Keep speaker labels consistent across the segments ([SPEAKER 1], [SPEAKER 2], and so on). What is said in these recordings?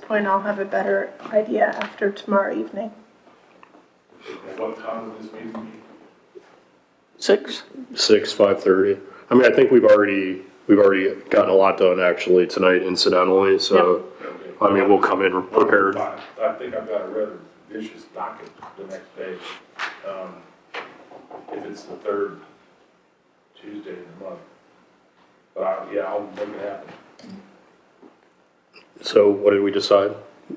[SPEAKER 1] point, I'll have a better idea after tomorrow evening.
[SPEAKER 2] At what time will this meeting be?
[SPEAKER 3] Six?
[SPEAKER 4] Six, five thirty. I mean, I think we've already, we've already gotten a lot done actually tonight incidentally, so, I mean, we'll come in prepared.
[SPEAKER 2] I I think I've got a rather vicious docket the next day. Um, If it's the third Tuesday of the month. But I, yeah, I'll make it happen.
[SPEAKER 4] So what did we decide?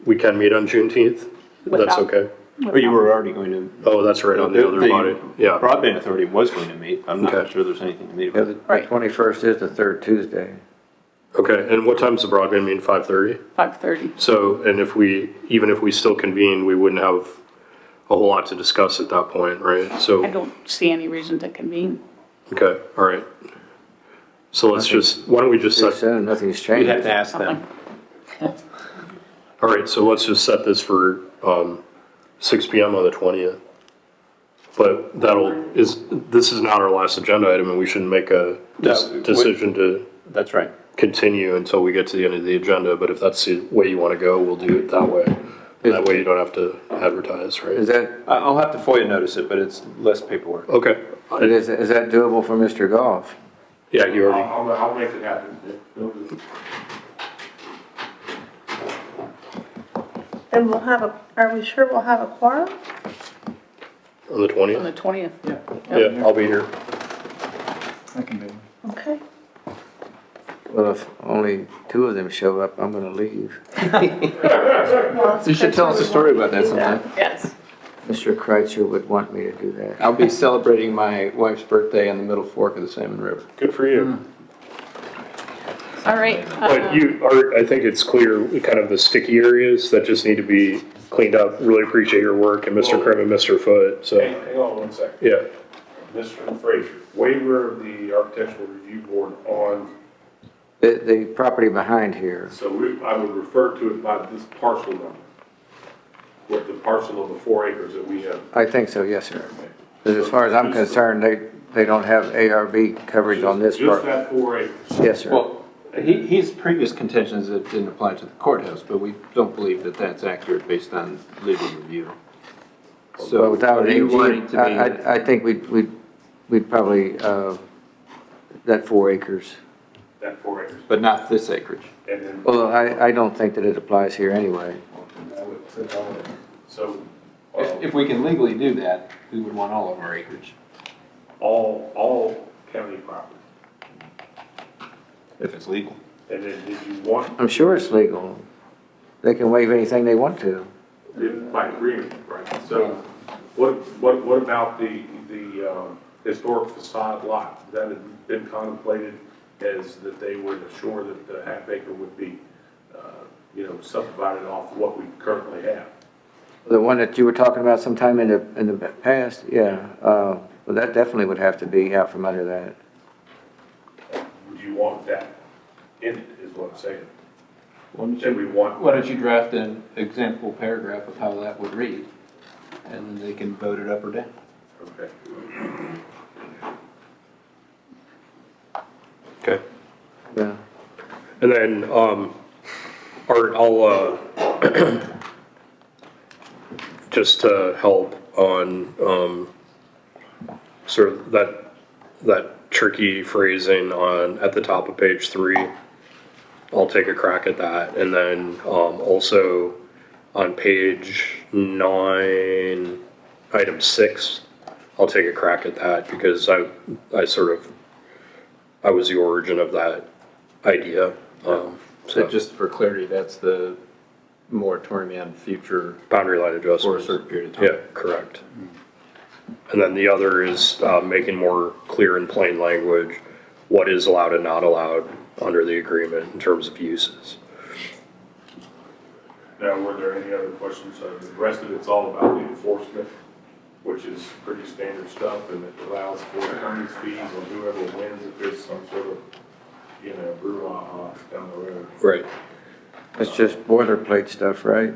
[SPEAKER 4] We can meet on Juneteenth? That's
[SPEAKER 3] Without-
[SPEAKER 4] okay.
[SPEAKER 5] Or you were already going to.
[SPEAKER 4] Oh, that's right, on the other body, yeah.
[SPEAKER 5] Broadband Authority was going to meet, I'm not
[SPEAKER 4] Okay.
[SPEAKER 5] sure there's anything to meet
[SPEAKER 6] Yeah,
[SPEAKER 5] about.
[SPEAKER 6] the
[SPEAKER 3] Right.
[SPEAKER 6] twenty-first is the third Tuesday.
[SPEAKER 4] Okay, and what time's the broadband meeting? Five thirty?
[SPEAKER 3] Five thirty.
[SPEAKER 4] So, and if we, even if we still convene, we wouldn't have a whole lot to discuss at that point, right?
[SPEAKER 3] I
[SPEAKER 4] So,
[SPEAKER 3] don't see any reason to convene.
[SPEAKER 4] okay, all right. So let's just, why don't we just
[SPEAKER 6] Too
[SPEAKER 4] set,
[SPEAKER 6] soon, nothing's
[SPEAKER 5] You'd have
[SPEAKER 6] changed.
[SPEAKER 5] to ask them.
[SPEAKER 4] all right, so let's just set this for, um, six P M on the twentieth. But that'll, is, this is not our last agenda item and we shouldn't make a dis-
[SPEAKER 5] No, we-
[SPEAKER 4] decision to
[SPEAKER 5] That's right.
[SPEAKER 4] continue until we get to the end of the agenda. But if that's the way you want to go, we'll do it that way. That way you don't have to advertise,
[SPEAKER 6] Is
[SPEAKER 4] right?
[SPEAKER 6] that,
[SPEAKER 5] I- I'll have to FOIA notice it, but it's less paperwork.
[SPEAKER 4] Okay,
[SPEAKER 6] but is, is that doable for Mr. Goff?
[SPEAKER 4] yeah, you already.
[SPEAKER 2] I'll, I'll- I'll make it happen.
[SPEAKER 1] And we'll have a, are we sure we'll have a quorum?
[SPEAKER 4] On the
[SPEAKER 3] On the
[SPEAKER 4] twentieth?
[SPEAKER 3] twentieth,
[SPEAKER 4] Yeah, I'll be here.
[SPEAKER 7] I can do it.
[SPEAKER 1] Okay.
[SPEAKER 6] Well, if only two of them show up, I'm gonna leave.
[SPEAKER 5] You should tell us a story about that sometime.
[SPEAKER 3] yes.
[SPEAKER 6] Mr. Kreitzer would want me to do that.
[SPEAKER 5] I'll be celebrating my wife's birthday on the Middle Fork of the Salmon River.
[SPEAKER 4] Good for you.
[SPEAKER 3] All right.
[SPEAKER 4] But you are, I think it's clear, kind of the sticky areas that just need to be cleaned up. Really appreciate your work and Mr. Krim and Mr. Foot,
[SPEAKER 2] Hang,
[SPEAKER 4] so,
[SPEAKER 2] hang on one second.
[SPEAKER 4] yeah.
[SPEAKER 2] Mr. Frazier, waiver of the architectural review board on,
[SPEAKER 6] The, the property behind here,
[SPEAKER 2] so we, I would refer to it by this parcel number. With the parcel of the four acres that we have.
[SPEAKER 6] I think so, yes, sir. 'Cause as far as I'm concerned, they, they don't have ARB coverage on this
[SPEAKER 2] Just- Just
[SPEAKER 6] part.
[SPEAKER 2] that four acres.
[SPEAKER 6] Yes, sir.
[SPEAKER 5] Well, he, his previous contention is that it didn't apply to the courthouse, but we don't believe that that's accurate based on legal review. So
[SPEAKER 6] But without
[SPEAKER 5] are
[SPEAKER 6] an
[SPEAKER 5] you wanting
[SPEAKER 6] AG,
[SPEAKER 5] to be?
[SPEAKER 6] I, I, I think we'd, we'd, we'd probably, uh, that four acres.
[SPEAKER 2] That four acres.
[SPEAKER 5] But not this acreage.
[SPEAKER 2] And then,
[SPEAKER 6] Well, I, I don't think that it applies here anyway.
[SPEAKER 2] I would- I would- so, uh,
[SPEAKER 5] If, if we can legally do that, we would want all of our acreage.
[SPEAKER 2] all, all county property.
[SPEAKER 5] If it's legal.
[SPEAKER 2] And then did you want,
[SPEAKER 6] I'm sure it's legal. They can waive anything they want to.
[SPEAKER 2] it by agreement, right? So what, what, what about the, the um, historic facade lot? That had been contemplated as that they would assure that the half acre would be, uh, you know, subdivided off what we currently have.
[SPEAKER 6] The one that you were talking about sometime in the, in the past, yeah, uh, well, that definitely would have to be out from under that.
[SPEAKER 2] Would you want that in it, is what I'm saying?
[SPEAKER 5] Why don't
[SPEAKER 2] That we
[SPEAKER 5] you,
[SPEAKER 2] want,
[SPEAKER 5] why don't you draft an example paragraph of how that would read? And then they can vote it up or down.
[SPEAKER 2] okay.
[SPEAKER 4] Okay.
[SPEAKER 6] Yeah.
[SPEAKER 4] And then, um, Art, I'll, uh, just to help on, um, sort of that, that tricky phrasing on, at the top of page three. I'll take a crack at that. And then, um, also on page nine, item six, I'll take a crack at that because I, I sort of, I was the origin of that idea. Um,
[SPEAKER 5] So
[SPEAKER 4] so
[SPEAKER 5] just for clarity, that's the moratorium on future
[SPEAKER 4] boundary line adjustments.
[SPEAKER 5] for a certain period of time.
[SPEAKER 4] Yeah, correct. And then the other is uh, making more clear in plain language what is allowed and not allowed under the agreement in terms of uses.
[SPEAKER 2] Now, were there any other questions? Uh, The rest of it's all about the enforcement, which is pretty standard stuff, and it allows for attorney's fees on whoever wins if there's some sort of, you know, brouhaha down the road.
[SPEAKER 4] Right.
[SPEAKER 6] That's just boilerplate stuff, right?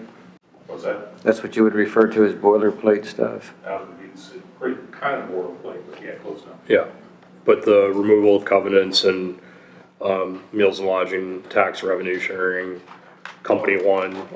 [SPEAKER 2] Was that
[SPEAKER 6] That's what you would refer to as boilerplate stuff.
[SPEAKER 2] out of the, it's pretty kind of boilerplate, but yeah, close enough.
[SPEAKER 4] Yeah, but the removal of covenants and um, meals and lodging, tax revenue sharing, company one,